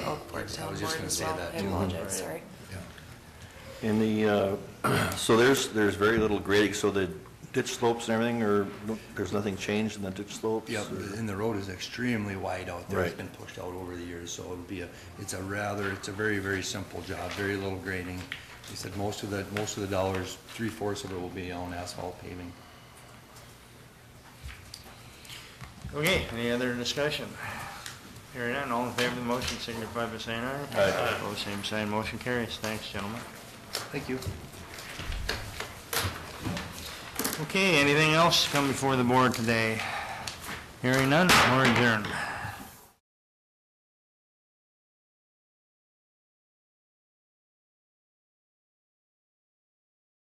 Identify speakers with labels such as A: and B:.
A: Oh,
B: Pardon, I
A: Town
B: was just
A: board
B: gonna
A: as
B: say
A: well.
B: that.
A: I
B: too.
A: apologize, sorry.
C: And the, uh, so there's, there's very little grading, so the ditch slopes and everything, or there's nothing changed in the ditch slopes?
B: Yep,
C: or-
B: and the road is extremely wide out there. It's
C: Right.
B: been pushed out over the years, so it'd be a, it's a rather, it's a very, very simple job, very little grading. He said most of the, most of the dollars, three-fourths of it will be on asphalt paving.
D: Okay, any other discussion? Hearing none, all in favor of the motion signify by saying aye.
C: Aye.
D: Opposed, same sign, motion carries. Thanks, gentlemen.
B: Thank you.
D: Okay, anything else come before the board today? Hearing none, we're adjourned.